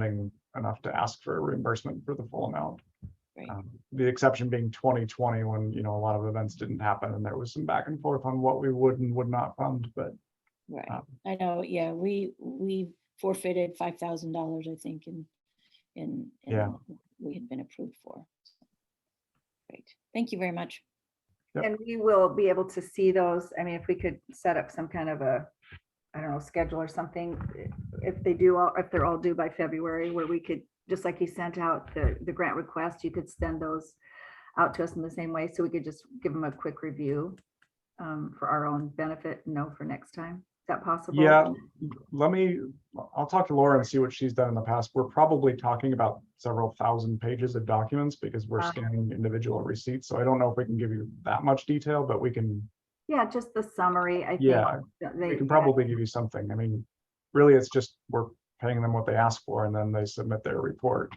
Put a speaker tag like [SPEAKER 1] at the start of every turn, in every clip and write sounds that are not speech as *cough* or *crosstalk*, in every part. [SPEAKER 1] funding enough to ask for reimbursement for the full amount.
[SPEAKER 2] Right.
[SPEAKER 1] Um, The exception being twenty twenty, when, you know, a lot of events didn't happen and there was some back and forth on what we would and would not fund, but
[SPEAKER 2] Right,
[SPEAKER 1] Um,
[SPEAKER 2] I know, yeah, we, we forfeited five thousand dollars, I think, in, in. in
[SPEAKER 1] Yeah.
[SPEAKER 2] what We had been approved for. so. Great, thank you very much.
[SPEAKER 1] Yep.
[SPEAKER 3] And we will be able to see those. I mean, if we could set up some kind of a, I don't know, schedule or something. If they do, all if they're all due by February, where we could, just like you sent out the, the grant request, you could send those out to us in the same way. So we could just give them a quick review um, for our own benefit, and know, for next time. Is that possible?
[SPEAKER 1] Yeah, let me, I'll talk to Laura and see what she's done in the past. We're probably talking about several thousand pages of documents because we're
[SPEAKER 3] Uh-huh.
[SPEAKER 1] scanning individual receipts, so I don't know if we can give you that much detail, but we can,
[SPEAKER 3] Yeah, just the summary, I think.
[SPEAKER 1] Yeah,
[SPEAKER 3] that
[SPEAKER 1] we
[SPEAKER 3] they-
[SPEAKER 1] can
[SPEAKER 3] that-
[SPEAKER 1] probably give you something. I mean, really, it's just we're paying them what they ask for and then they submit their report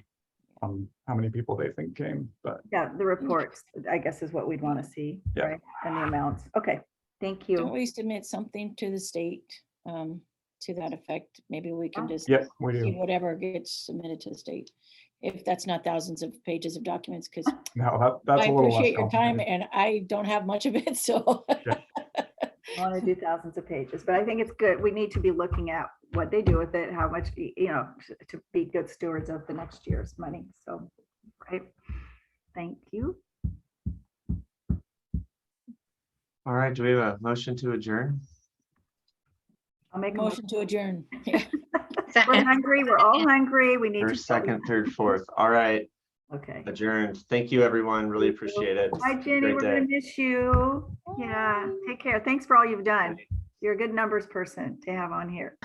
[SPEAKER 1] on how many people they think came, but
[SPEAKER 3] Yeah, the reports, I guess, is what we'd want to see,
[SPEAKER 1] Yeah.
[SPEAKER 3] right? And the amounts. Okay, thank
[SPEAKER 2] Don't
[SPEAKER 3] you.
[SPEAKER 2] we submit something to the state, um, to that effect? Maybe we can just.
[SPEAKER 1] yep, we
[SPEAKER 2] see
[SPEAKER 1] do.
[SPEAKER 2] Whatever gets submitted to the state, if that's not thousands of pages of documents, because
[SPEAKER 1] No, that, that's
[SPEAKER 2] I
[SPEAKER 1] a little less
[SPEAKER 2] appreciate your time
[SPEAKER 1] complicated.
[SPEAKER 2] and I don't have much of it, *laughs* so.
[SPEAKER 3] I want to do thousands of pages, but I think it's good. We need to be looking at what they do with it, how much, y- you know, t- to be good stewards of the next year's money. So, right. Thank you.
[SPEAKER 4] All right, do we have a motion to adjourn?
[SPEAKER 3] I'll make a motion.
[SPEAKER 2] Motion to adjourn. *laughs*
[SPEAKER 3] We're hungry. We're all hungry. We need to.
[SPEAKER 4] First, second, third, fourth. All right,
[SPEAKER 3] Okay.
[SPEAKER 4] adjourned. Thank you, everyone. Really appreciate it.
[SPEAKER 3] Hi, Jenny.
[SPEAKER 4] Great
[SPEAKER 3] We're gonna
[SPEAKER 4] day.
[SPEAKER 3] miss you. Yeah, take care. Thanks for all you've done. You're a good numbers person to have on here.